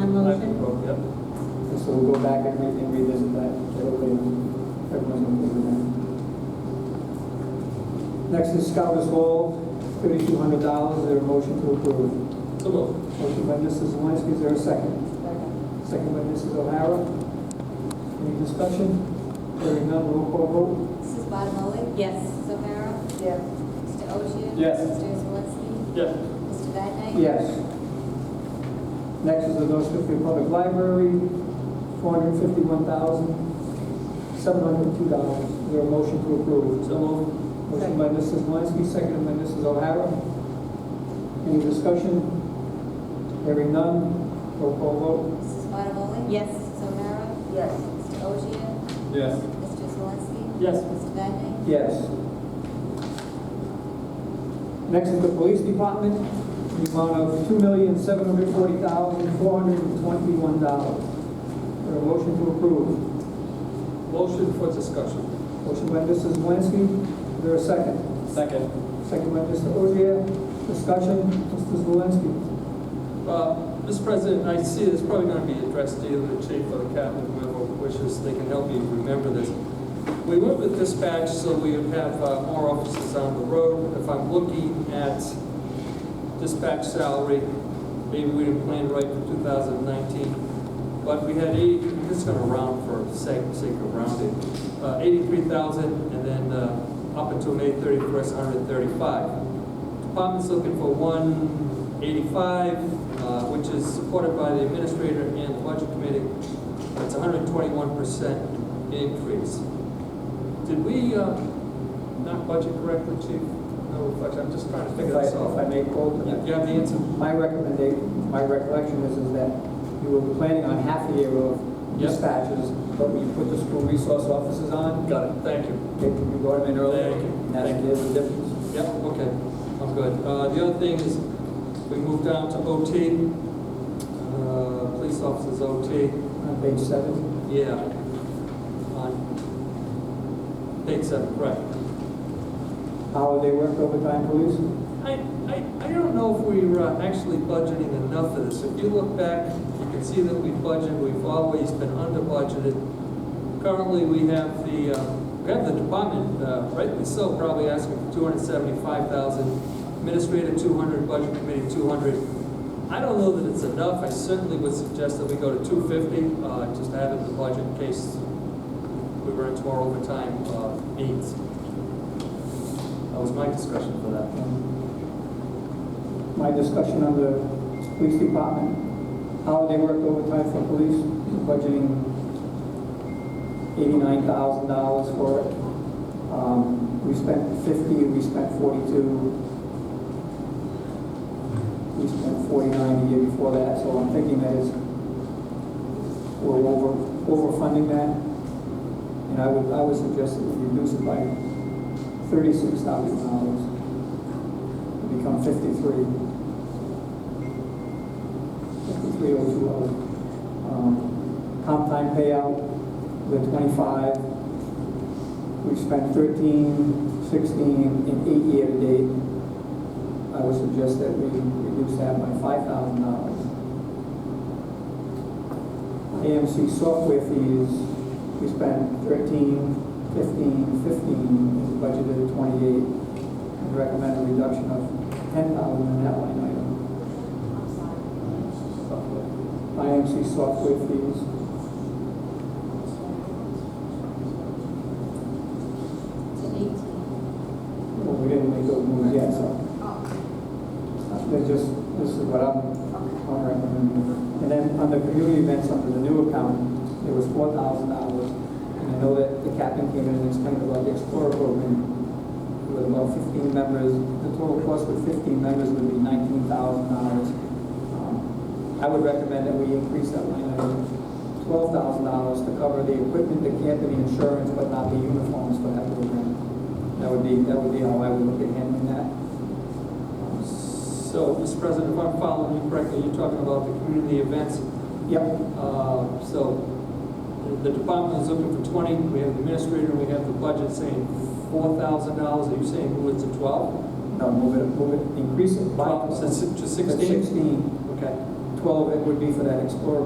I can go, yep. And so we'll go back and re- and revisit that, if everybody- everyone's okay with that. Next is Scottus Hall, thirty-two hundred dollars, is there a motion to approve? So moved. Motion by Mrs. Zelinski, is there a second? Second by Mrs. O'Hara. Any discussion? Hearing none, roll call vote. Mrs. Bottomoli? Yes. Mrs. O'Hara? Yes. Mr. Oshia? Yes. Mr. Zalinski? Yes. Mr. Vadeney? Yes. Next is the North Smithfield Public Library, four hundred fifty-one thousand, seven hundred two dollars. Is there a motion to approve? So moved. Motion by Mrs. Zelinski, seconded by Mrs. O'Hara. Any discussion? Hearing none, roll call vote. Mrs. Bottomoli? Yes. Mrs. O'Hara? Yes. Mr. Oshia? Yes. Mr. Zalinski? Yes. Mr. Vadeney? Yes. Next is the police department, the amount of two million, seven hundred forty thousand, four hundred and twenty-one dollars. a motion to approve? Motion for discussion. Motion by Mrs. Zelinski, is there a second? Second. Second by Mr. Ogier, discussion, Mr. Zelinski. Uh, Mr. President, I see it's probably going to be addressed to either the chief or the captain, whoever wishes, they can help you remember this. We went with dispatch so we would have uh, more officers on the road. If I'm looking at dispatch salary, maybe we didn't plan right for 2019, but we had 80, this is going to round for sake sake of rounding, uh, 83,000, and then uh, up until May 31st, 135. Department's looking for 185, uh, which is supported by the administrator and the budget committee. That's 121% increase. Did we uh, not budget correctly, Chief? No, reflection. I'm just trying to If figure I, this out. if I may quote, You you have the answer? my recommendation, my recollection is, is that you were planning on half a year of Yep. dispatches, but we put the school resource officers on, Got it. Thank you. Okay, you brought them in earlier, and that's Thank you. the difference. Yep, okay, I'm good. Uh, The other thing is, we moved down to OT, uh, police officers OT, On page seven, yeah. On page seven, right. holiday work overtime police, I, I, I don't know if we were uh, actually budgeting enough of this. If you look back, you can see that we budget, we've always been under budgeted. Currently, we have the, uh, we have the department, uh, rightly so, probably asking for two hundred seventy-five thousand, administrative two hundred, budget committee two hundred. I don't know that it's enough, I certainly would suggest that we go to two fifty, uh, just to have it in the budget in case we run into our overtime, uh, needs. That was my discussion for that. um, my discussion on the police department, holiday work overtime for police, budgeting eighty-nine thousand dollars for it. Um, we spent fifty, we spent forty-two. We spent forty-nine the year before that, so I'm thinking that it's, we're over, overfunding that. And I would, I would suggest that we reduce it by thirty-six thousand dollars to become fifty-three. Fifty-three oh two oh. Um, comp time payout, the twenty-five. We've spent thirteen, sixteen, and eight year-to-date. I would suggest that we reduce that by five thousand dollars. AMC software fees, we spent 13, 15, 15, is budgeted at 28. I'd recommend a reduction of 10,000 in that line item. IMC software fees. To eighteen. Well, we didn't make those moves yet, so Oh, they're just, this is what I'm okay. I'm recommending. And then on the community events, under the new account, it was $4,000. And I know that the captain came in and explained about the Explorer program, with about 15 members, the total cost with 15 members would be $19,000. Um, I would recommend that we increase that line item, $12,000 to cover the equipment, the camp, and the insurance, but not the uniforms for that program. That would be, that would be how I would look at handling that. So, Mr. President, if I'm following you correctly, you're talking about the community events. Yep, Uh, So the the department is looking for 20, we have the administrator, we have the budget saying $4,000. Are you saying move it to 12? no, move it, move it, increase it by... To 16? Sixteen. Okay. Twelve, it would be for that Explorer